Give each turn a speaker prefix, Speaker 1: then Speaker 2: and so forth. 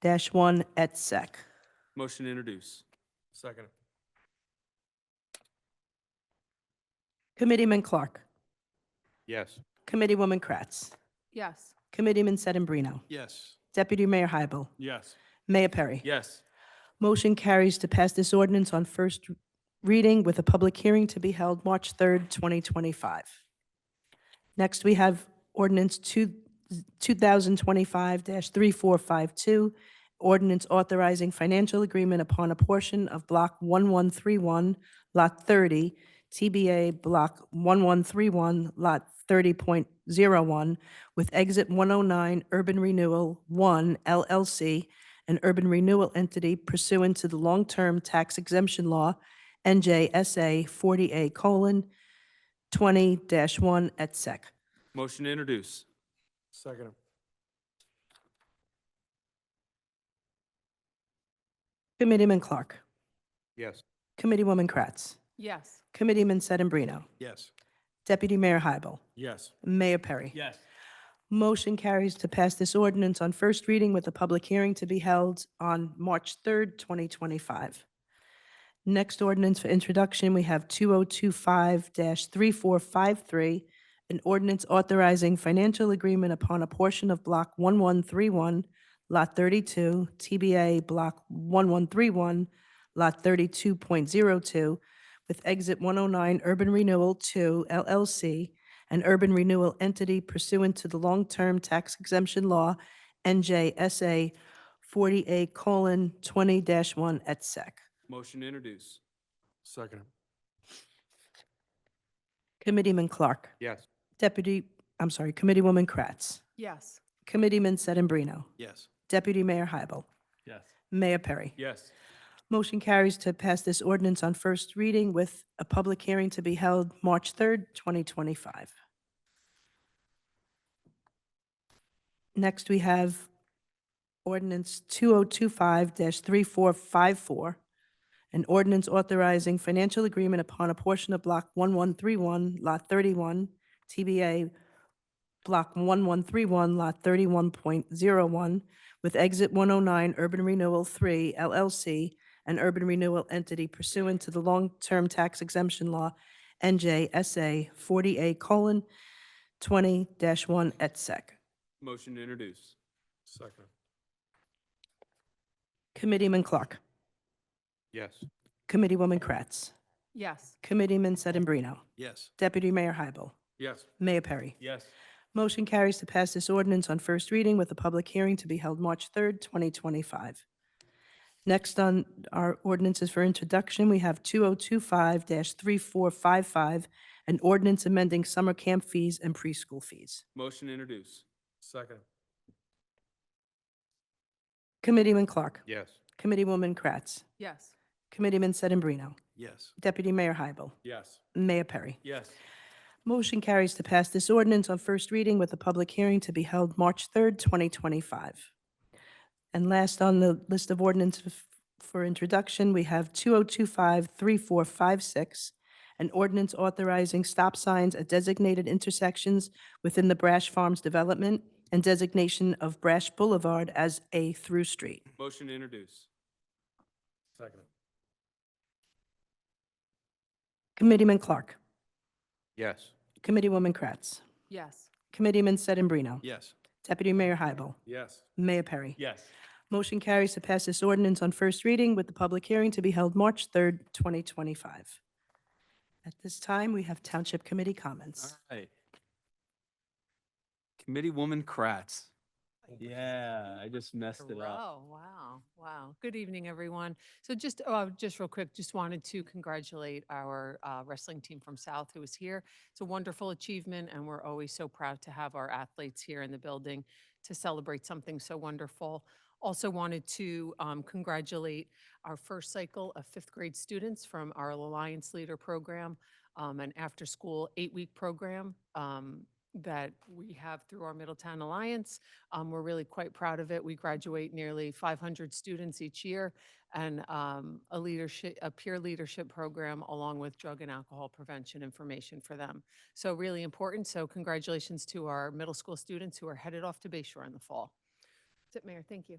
Speaker 1: dash one et sec.
Speaker 2: Motion to introduce.
Speaker 3: Second.
Speaker 1: Committeeman Clark.
Speaker 3: Yes.
Speaker 1: Committeewoman Kratz.
Speaker 4: yes,
Speaker 1: Committeeman Sedembrino.
Speaker 3: Yes.
Speaker 1: Deputy Mayor Hybel.
Speaker 2: Yes.
Speaker 1: Mayor Perry.
Speaker 2: Yes.
Speaker 1: Motion carries to pass this ordinance on first reading with a public hearing to be held March 3rd, 2025. Next, we have ordinance two- 2025-3452, ordinance authorizing financial agreement upon a portion of Block 1131, Lot 30, TBA Block 1131, Lot 30.01, with Exit 109 Urban Renewal 1 LLC, an urban renewal entity pursuant to the long-term tax exemption law, NJSA 40A colon 20-1 et sec.
Speaker 2: Motion to introduce.
Speaker 3: Second.
Speaker 1: Committeeman Clark.
Speaker 3: Yes.
Speaker 1: Committeewoman Kratz.
Speaker 4: yes,
Speaker 1: Committeeman Sedambrino.
Speaker 3: Yes.
Speaker 1: Deputy Mayor Hybel.
Speaker 3: Yes.
Speaker 1: Mayor Perry.
Speaker 2: Yes.
Speaker 1: Motion carries to pass this ordinance on first reading with a public hearing to be held on March 3rd, 2025. Next ordinance for introduction, we have 2025-3453, an ordinance authorizing financial agreement upon a portion of Block 1131, Lot 32, TBA Block 1131, Lot 32.02, with Exit 109 Urban Renewal 2 LLC, an urban renewal entity pursuant to the long-term tax exemption law, NJSA 40A:20-1 et sec.
Speaker 2: Motion to introduce.
Speaker 3: Second.
Speaker 1: Committeeman Clark,
Speaker 3: Yes.
Speaker 1: Deputy, I'm sorry, Committeewoman Kratz,
Speaker 4: yes,
Speaker 1: Committeeman Sedambrino,
Speaker 3: Yes.
Speaker 1: Deputy Mayor Hybel,
Speaker 2: Yes.
Speaker 1: Mayor Perry.
Speaker 2: Yes.
Speaker 1: Motion carries to pass this ordinance on first reading with a public hearing to be held March 3rd, 2025. Next, we have ordinance 2025-3454, an ordinance authorizing financial agreement upon a portion of Block 1131, Lot 31, TBA Block 1131, Lot 31.01, with Exit 109 Urban Renewal 3 LLC, an urban renewal entity pursuant to the long-term tax exemption law, NJSA 40A:20-1 et sec.
Speaker 2: Motion to introduce.
Speaker 3: Second.
Speaker 1: Committeeman Clark,
Speaker 3: Yes.
Speaker 1: Committeewoman Kratz,
Speaker 4: yes,
Speaker 1: Committeeman Sedambrino,
Speaker 3: Yes.
Speaker 1: Deputy Mayor Hybel,
Speaker 2: Yes.
Speaker 1: Mayor Perry.
Speaker 2: Yes.
Speaker 1: Motion carries to pass this ordinance on first reading with a public hearing to be held March 3rd, 2025. Next on our ordinances for introduction, we have 2025-3455, an ordinance amending summer camp fees and preschool fees.
Speaker 2: Motion to introduce.
Speaker 3: Second.
Speaker 1: Committeeman Clark.
Speaker 3: Yes.
Speaker 1: Committeewoman Kratz.
Speaker 4: yes,
Speaker 1: Committeeman Sedambrino.
Speaker 3: Yes.
Speaker 1: Deputy Mayor Hybel.
Speaker 2: Yes.
Speaker 1: Mayor Perry.
Speaker 2: Yes.
Speaker 1: Motion carries to pass this ordinance on first reading with a public hearing to be held March 3rd, 2025. And last on the list of ordinances for introduction, we have 2025-3456, an ordinance authorizing stop signs at designated intersections within the Brash Farms development and designation of Brash Boulevard as a through street.
Speaker 2: Motion to introduce.
Speaker 3: Second.
Speaker 1: Committeeman Clark.
Speaker 3: Yes.
Speaker 1: Committeewoman Kratz.
Speaker 4: yes,
Speaker 1: Committeeman Sedambrino.
Speaker 3: Yes.
Speaker 1: Deputy Mayor Hybel.
Speaker 3: Yes.
Speaker 1: Mayor Perry.
Speaker 2: Yes.
Speaker 1: Motion carries to pass this ordinance on first reading with the public hearing to be held March 3rd, 2025. At this time, we have Township Committee comments.
Speaker 2: All right. Committee Woman Kratz. Yeah, I just messed it up.
Speaker 4: Oh, wow, wow. Good evening, everyone. So just, uh, just real quick, just wanted to congratulate our uh, wrestling team from South who is here. It's a wonderful achievement and we're always so proud to have our athletes here in the building to celebrate something so wonderful. Also wanted to um, congratulate our first cycle of fifth grade students from our Alliance Leader Program, um, an after-school eight-week program um, that we have through our Middletown Alliance. Um, we're really quite proud of it. We graduate nearly 500 students each year and um, a leadership, a peer leadership program along with drug and alcohol prevention information for them. So really important. So congratulations to our middle school students who are headed off to Bayshore in the fall. That's it, Mayor. Thank you.